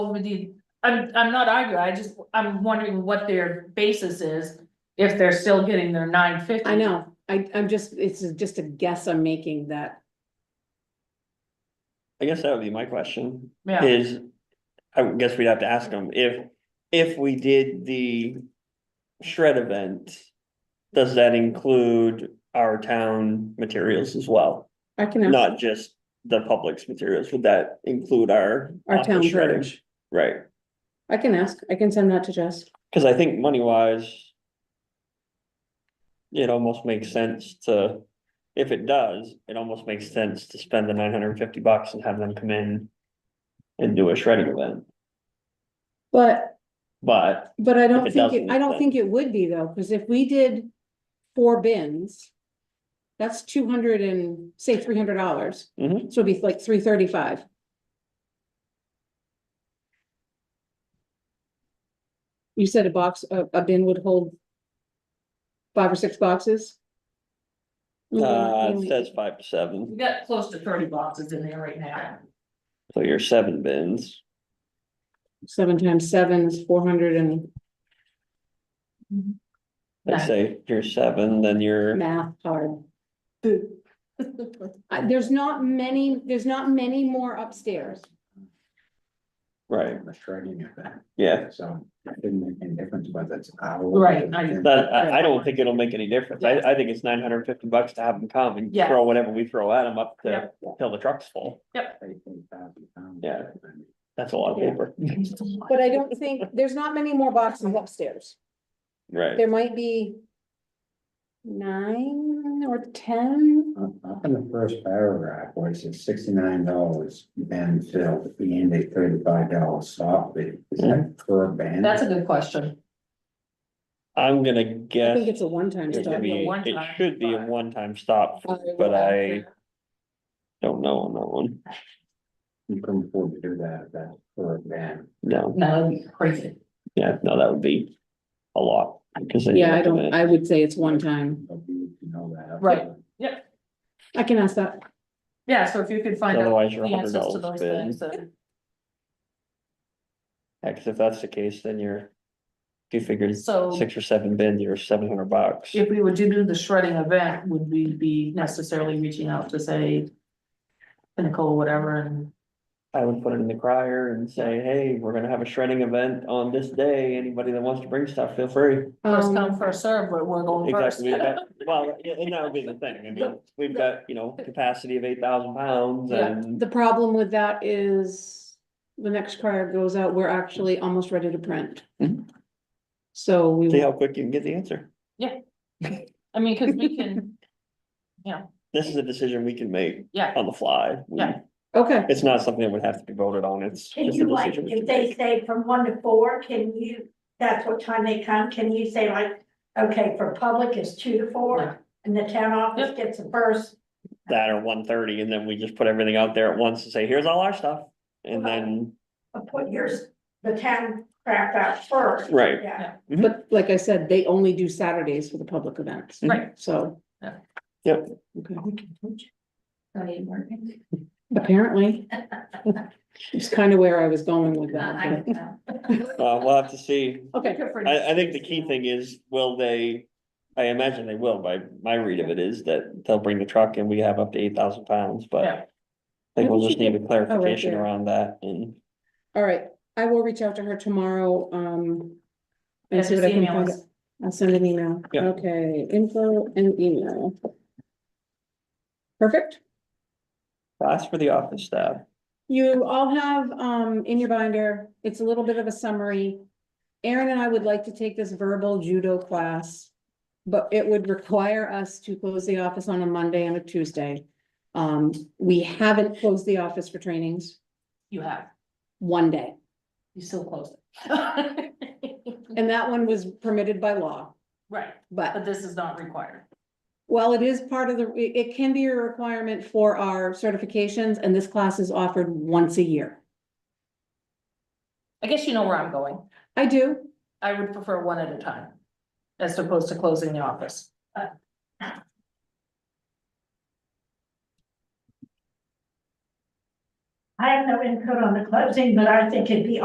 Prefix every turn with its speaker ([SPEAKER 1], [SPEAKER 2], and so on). [SPEAKER 1] with you, I'm, I'm not arguing, I just, I'm wondering what their basis is. If they're still getting their nine fifty.
[SPEAKER 2] I know, I, I'm just, it's just a guess I'm making that,
[SPEAKER 3] I guess that would be my question,
[SPEAKER 1] Yeah,
[SPEAKER 3] is, I would guess we'd have to ask them, if, if we did the shred event, does that include our town materials as well?
[SPEAKER 2] I can ask
[SPEAKER 3] Not just the public's materials, would that include our?
[SPEAKER 2] our town
[SPEAKER 3] office shredding?
[SPEAKER 2] village.
[SPEAKER 3] Right,
[SPEAKER 2] I can ask, I can send that to Jess.
[SPEAKER 3] cause I think money wise. It almost makes sense to, if it does, it almost makes sense to spend the nine hundred and fifty bucks and have them come in. And do a shredding event,
[SPEAKER 2] But,
[SPEAKER 3] but
[SPEAKER 2] but I don't
[SPEAKER 3] it
[SPEAKER 2] think, it-
[SPEAKER 3] doesn't,
[SPEAKER 2] I don't
[SPEAKER 3] then-
[SPEAKER 2] think it would be though, because if we did four bins, that's two hundred and, say, three hundred dollars.
[SPEAKER 3] Mhm.
[SPEAKER 2] So it'd be like three thirty-five. You said a box, a, a bin would hold five or six boxes?
[SPEAKER 3] Uh,
[SPEAKER 2] Mm,
[SPEAKER 3] it says five to
[SPEAKER 1] we
[SPEAKER 3] seven,
[SPEAKER 1] got close to thirty boxes in there right now.
[SPEAKER 3] so you're seven bins.
[SPEAKER 2] Seven times seven is four hundred and
[SPEAKER 3] Let's
[SPEAKER 1] Right.
[SPEAKER 3] say you're seven, then you're,
[SPEAKER 2] math hard. Uh, there's not many, there's not many more upstairs.
[SPEAKER 3] right,
[SPEAKER 4] a shredding event,
[SPEAKER 3] yeah.
[SPEAKER 4] so it didn't make any difference whether it's hour.
[SPEAKER 1] Right, I-
[SPEAKER 3] That, I, I don't think it'll make any difference. I, I think it's nine hundred and fifty bucks to have them come and
[SPEAKER 1] Yeah.
[SPEAKER 3] throw whatever we throw at them up
[SPEAKER 1] Yeah.
[SPEAKER 3] to, till the truck's full. Yeah. That's a lot of
[SPEAKER 2] Yeah.
[SPEAKER 3] paper,
[SPEAKER 2] But I don't think, there's not many more boxes upstairs.
[SPEAKER 3] right?
[SPEAKER 2] There might be nine or ten.
[SPEAKER 4] Up up Uh, in the first paragraph, where it says sixty-nine dollars band fill and a thirty-five dollar stop fee, is that per band?
[SPEAKER 1] That's a good question.
[SPEAKER 3] I'm gonna
[SPEAKER 2] I
[SPEAKER 3] guess
[SPEAKER 2] think it's a one-time
[SPEAKER 1] gotta
[SPEAKER 3] it
[SPEAKER 2] stop.
[SPEAKER 3] should
[SPEAKER 1] be a
[SPEAKER 3] be, it
[SPEAKER 1] one-time
[SPEAKER 3] should be a
[SPEAKER 1] buy.
[SPEAKER 3] one-time stop, but I don't know on that one,
[SPEAKER 4] You couldn't afford to do that, if that's per band.
[SPEAKER 3] no,
[SPEAKER 1] No, that'd be crazy.
[SPEAKER 3] yeah, no, that would be a lot. 'cause then you
[SPEAKER 2] Yeah, I
[SPEAKER 3] have to
[SPEAKER 2] don't,
[SPEAKER 3] manage-
[SPEAKER 2] I would say it's one time.
[SPEAKER 4] But you need to know that. up
[SPEAKER 1] Right.
[SPEAKER 4] front.
[SPEAKER 2] I can ask that.
[SPEAKER 1] Yeah, so if you could find out
[SPEAKER 3] Otherwise,
[SPEAKER 1] the
[SPEAKER 3] you're a hundred
[SPEAKER 1] answers to those
[SPEAKER 3] dollars bid.
[SPEAKER 1] things, then,
[SPEAKER 3] Yeah, 'cause if that's the case, then you're, if you figured
[SPEAKER 1] uh, so
[SPEAKER 3] six or seven bins, you're seven hundred bucks.
[SPEAKER 1] if we would do the shredding event, would we be necessarily reaching out to say. Pinnacle, or whatever, and
[SPEAKER 3] I would put it in the crier and say, hey, we're gonna have a shredding event on this day. Anybody that wants to bring stuff, feel free.
[SPEAKER 1] first
[SPEAKER 2] Um,
[SPEAKER 1] come, first serve, but we're going first.
[SPEAKER 3] Exactly, we've got, well, yeah, and that would be the thing. I mean, we've got, you know, capacity of eight thousand pounds
[SPEAKER 1] Yeah,
[SPEAKER 3] and,
[SPEAKER 2] The problem with that is the next card goes out, we're actually almost ready to print.
[SPEAKER 3] Mhm.
[SPEAKER 2] So we,
[SPEAKER 3] see
[SPEAKER 2] will-
[SPEAKER 3] how quick you can get the answer.
[SPEAKER 1] I mean, cause we can,
[SPEAKER 3] This is a decision we can make
[SPEAKER 1] yeah,
[SPEAKER 3] on the fly. We-
[SPEAKER 1] Yeah.
[SPEAKER 2] okay,
[SPEAKER 3] It's not something that would have to be voted on. It's
[SPEAKER 5] Can
[SPEAKER 3] just a
[SPEAKER 5] you like,
[SPEAKER 3] decision. we
[SPEAKER 5] if
[SPEAKER 3] can
[SPEAKER 5] they
[SPEAKER 3] make.
[SPEAKER 5] say from one to four, can you, that's what time they come, can you say like, okay, for public is two to
[SPEAKER 1] Yeah.
[SPEAKER 5] four? And the town office gets the first,
[SPEAKER 3] That or one thirty and then we just put everything out there at once and say, here's all our stuff. And then
[SPEAKER 5] uh, put yours, the town crap out first.
[SPEAKER 3] Right.
[SPEAKER 5] Yeah.
[SPEAKER 1] Mm-hmm.
[SPEAKER 2] but like I said, they only do Saturdays for the public events.
[SPEAKER 1] Right.
[SPEAKER 2] So.
[SPEAKER 1] Yeah.
[SPEAKER 3] Yep.
[SPEAKER 2] Okay. Apparently. It's kind of where I was going with that.
[SPEAKER 3] Uh, we'll have to see.
[SPEAKER 2] Okay,
[SPEAKER 3] I, I think the key thing is, will they, I imagine they will, by my read of it is that they'll bring the truck and we have up to eight thousand pounds, but.
[SPEAKER 1] Yeah.
[SPEAKER 3] I think we'll
[SPEAKER 2] Maybe
[SPEAKER 3] just
[SPEAKER 2] she
[SPEAKER 3] need a clarification
[SPEAKER 2] there.
[SPEAKER 3] around that and,
[SPEAKER 2] all right. I will reach out to her tomorrow, um.
[SPEAKER 1] Yeah,
[SPEAKER 2] And see
[SPEAKER 1] just
[SPEAKER 2] what I can
[SPEAKER 1] email
[SPEAKER 2] find
[SPEAKER 1] us.
[SPEAKER 2] out. I'll send an email.
[SPEAKER 3] Yeah.
[SPEAKER 2] Okay, info and email. Perfect.
[SPEAKER 3] that's for the office staff.
[SPEAKER 2] You all have, um, in your binder, it's a little bit of a summary. Aaron and I would like to take this verbal judo class. But it would require us to close the office on a Monday and a Tuesday. Um, we haven't closed the office for trainings
[SPEAKER 1] You have,
[SPEAKER 2] one day,
[SPEAKER 1] you still close it.
[SPEAKER 2] and that one was permitted by law.
[SPEAKER 1] Right,
[SPEAKER 2] But,
[SPEAKER 1] but this is not required.
[SPEAKER 2] well, it is part of the, it, it can be a requirement for our certifications, and this class is offered once a year.
[SPEAKER 1] I guess you know where I'm going.
[SPEAKER 2] I do,
[SPEAKER 1] I would prefer one at a time. As opposed to closing the office.
[SPEAKER 5] I have no input on the closing, but I think it'd be